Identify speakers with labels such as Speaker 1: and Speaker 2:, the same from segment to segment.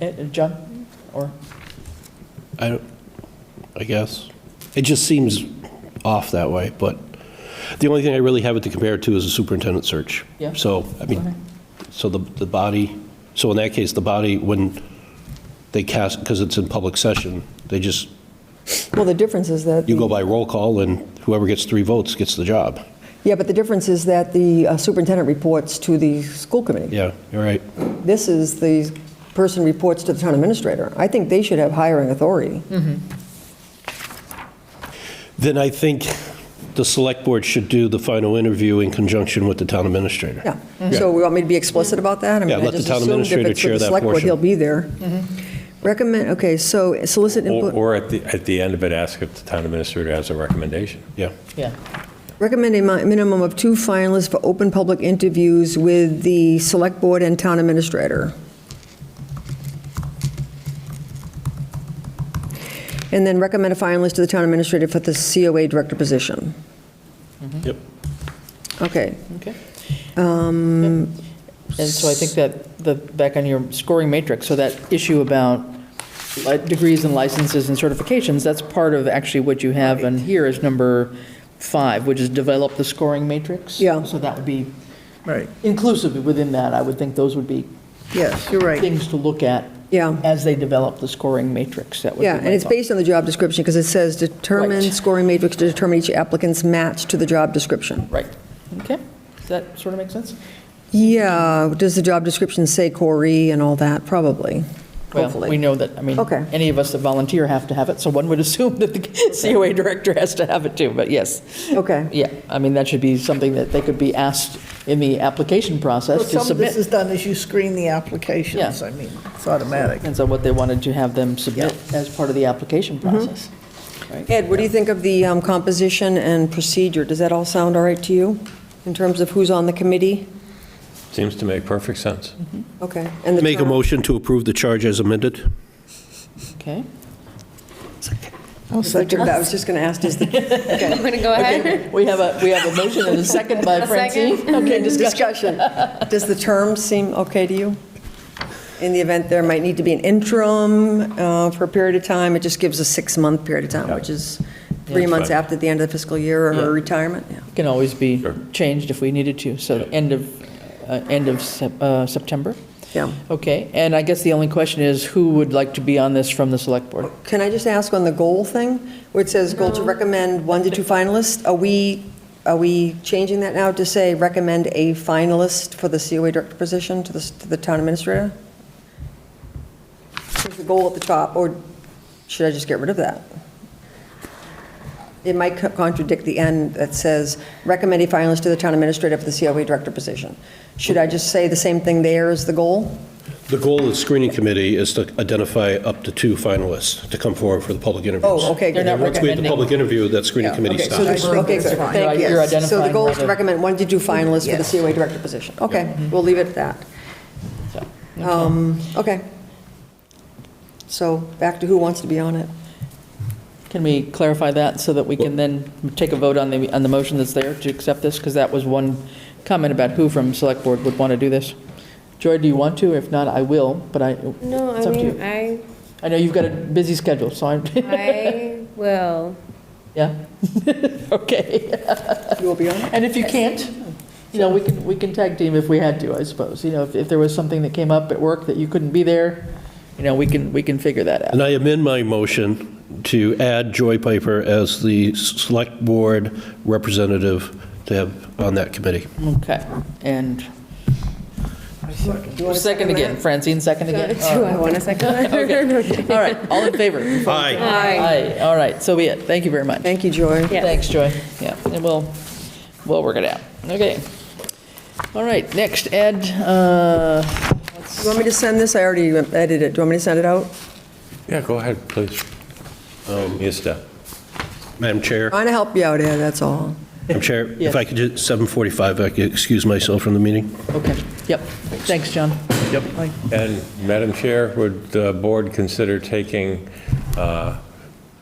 Speaker 1: Uh, uh, John, or,
Speaker 2: I, don't- I guess. It just seems off that way, but the only thing I really have it to compare it to is a superintendent search.
Speaker 1: Yeah.
Speaker 2: So, I
Speaker 1: Okay.
Speaker 2: mean, so the, the body, so in that case, the body, when they cast, because it's in public session, they just,
Speaker 3: Well, the difference is that,
Speaker 2: you
Speaker 3: the-
Speaker 2: go by roll call, and whoever gets three votes gets the job.
Speaker 3: yeah, but the difference is that the uh, superintendent reports to the school committee.
Speaker 2: Yeah, you're right.
Speaker 3: This is the person reports to the town administrator. I think they should have hiring authority.
Speaker 2: Then I think the select board should do the final interview in conjunction with the town administrator.
Speaker 3: Yeah. So we want me to be explicit about that? I mean,
Speaker 2: Yeah,
Speaker 3: I
Speaker 2: let the
Speaker 3: just
Speaker 2: town
Speaker 3: assumed if
Speaker 2: administrator
Speaker 3: it's with
Speaker 2: chair
Speaker 3: the
Speaker 2: that
Speaker 3: select board,
Speaker 2: portion.
Speaker 3: He'll be there. Recommend, okay, so solicit
Speaker 4: Or
Speaker 3: input,
Speaker 4: or at the, at the end of it, ask if the town administrator has a recommendation.
Speaker 2: Yeah.
Speaker 1: yeah,
Speaker 3: recommend a mi- minimum of two finalists for open public interviews with the select board and town administrator. And then recommend a finalist to the town administrator for the COA director position.
Speaker 1: Mm-hmm.
Speaker 2: Yep.
Speaker 3: Okay,
Speaker 1: okay. Um. And so I think that, the, back on your scoring matrix, so that issue about li- degrees and licenses and certifications, that's part of actually what you have in here is number five, which is develop the scoring matrix.
Speaker 3: Yeah.
Speaker 1: So that would be
Speaker 5: Right,
Speaker 1: inclusive within that, I would think those would be
Speaker 5: yes, you're right.
Speaker 1: things to look at
Speaker 3: yeah.
Speaker 1: as they develop the scoring matrix, that would be
Speaker 3: Yeah,
Speaker 1: my
Speaker 3: and it's
Speaker 1: thought.
Speaker 3: based on the job description, because it says determine
Speaker 1: Right.
Speaker 3: scoring matrix to determine each applicant's match to the job description.
Speaker 1: Right, okay, does that sort of make sense?
Speaker 3: Yeah, does the job description say Corey and all that?
Speaker 1: Well,
Speaker 3: Probably,
Speaker 1: we
Speaker 3: hopefully.
Speaker 1: know that, I mean,
Speaker 3: Okay.
Speaker 1: any of us that volunteer have to have it, so one would assume that the COA director has to have it too, but yes.
Speaker 3: Okay.
Speaker 1: Yeah, I mean, that should be something that they could be asked in the application
Speaker 5: Well,
Speaker 1: process to
Speaker 5: Some of this
Speaker 1: submit.
Speaker 5: is done as you screen the applications,
Speaker 1: Yeah.
Speaker 5: I mean, it's automatic.
Speaker 1: And so what they wanted to have them submit as part of the application
Speaker 5: Mm-hmm.
Speaker 1: process.
Speaker 3: Ed, what do you think of the um, composition and procedure? Does that all sound all right to you, in terms of who's on the committee?
Speaker 4: Seems to make perfect sense.
Speaker 3: Okay. and the
Speaker 2: Make a
Speaker 3: term.
Speaker 2: motion to approve the charge as amended?
Speaker 1: Okay,
Speaker 5: I'll second
Speaker 3: I
Speaker 5: that.
Speaker 3: was just going to ask, does the
Speaker 6: I'm going to go ahead.
Speaker 1: we have a, we have a motion and a second by
Speaker 6: A second.
Speaker 1: Francine. Okay, discussion.
Speaker 3: discussion, does the term seem okay to you? In the event there might need to be an interim uh, for a period of time, it just gives a six-month period of time, which is three
Speaker 1: Yeah.
Speaker 3: months after the end of the fiscal year
Speaker 1: Yeah.
Speaker 3: or retirement, yeah.
Speaker 1: Can always be
Speaker 4: Sure.
Speaker 1: changed if we needed to, so end of, uh, end of Sep- uh, September?
Speaker 3: Yeah.
Speaker 1: Okay, and I guess the only question is, who would like to be on this from the select board?
Speaker 3: Can I just ask on the goal thing, where it says goal to recommend one to two finalists? Are we, are we changing that now to say recommend a finalist for the COA director position to the, to the town administrator? Is the goal at the top, or should I just get rid of that? It might co- contradict the end that says recommend a finalist to the town administrator for the COA director position. Should I just say the same thing there as the goal?
Speaker 2: The goal of the screening committee is to identify up to two finalists to come forward for the public interviews.
Speaker 3: Oh, okay, good.
Speaker 1: They're not
Speaker 2: Once we have the
Speaker 1: recommending.
Speaker 2: public interview, that screening
Speaker 3: Yeah,
Speaker 2: committee
Speaker 3: okay, so
Speaker 2: stops.
Speaker 3: the- Okay, good, thank you.
Speaker 1: You're
Speaker 3: So the
Speaker 1: identifying
Speaker 3: goal is to
Speaker 1: rather-
Speaker 3: recommend one to two finalists for the
Speaker 5: Yes.
Speaker 3: COA director position. Okay, we'll leave it at that.
Speaker 1: So,
Speaker 3: Um, Okay. So back to who wants to be on it.
Speaker 1: Can we clarify that so that we can then take a vote on the, on the motion that's there to accept this? Because that was one comment about who from select board would want to do this. Joy, do you want to? If not, I will, but I,
Speaker 6: No,
Speaker 1: It's
Speaker 6: I
Speaker 1: up to
Speaker 6: mean,
Speaker 1: you.
Speaker 6: I,
Speaker 1: I know you've got a busy schedule, so I'm,
Speaker 6: I will.
Speaker 1: yeah, okay.
Speaker 3: You will be on it?
Speaker 1: And if you can't, you know, we can, we can tag team if we had to, I suppose. You know, if, if there was something that came up at work that you couldn't be there, you know, we can, we can figure that out.
Speaker 2: And I amend my motion to add Joy Piper as the select board representative to have on that committee.
Speaker 1: Okay, and. Second again, Francine, second
Speaker 6: Do
Speaker 1: again.
Speaker 6: I want a second?
Speaker 1: Okay, all right, all in favor?
Speaker 2: Aye.
Speaker 1: Aye, all right, so be it, thank you very much.
Speaker 3: Thank you, Joy.
Speaker 6: Yes.
Speaker 1: Thanks, Joy, yeah, and we'll, we'll work it out, okay. All right, next, Ed, uh,
Speaker 3: You want me to send this? I already edited it. Do you want me to send it out?
Speaker 4: Yeah, go ahead, please. Um, Yes, Deb.
Speaker 2: Madam Chair,
Speaker 3: Trying to help you out, Ed, that's all.
Speaker 2: Madam Chair,
Speaker 1: Yes.
Speaker 2: if I could, just- 7:45, I could excuse myself from the meeting.
Speaker 1: okay, yep, thanks, John. Yep.
Speaker 4: And Madam Chair, would the board consider taking uh,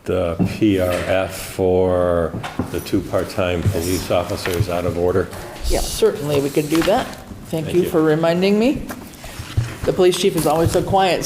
Speaker 4: the PRF for the two part-time police officers out of order?
Speaker 1: Certainly, we could do that, thank
Speaker 4: Thank
Speaker 1: you
Speaker 4: you.
Speaker 1: for reminding me. The police chief is always so quiet,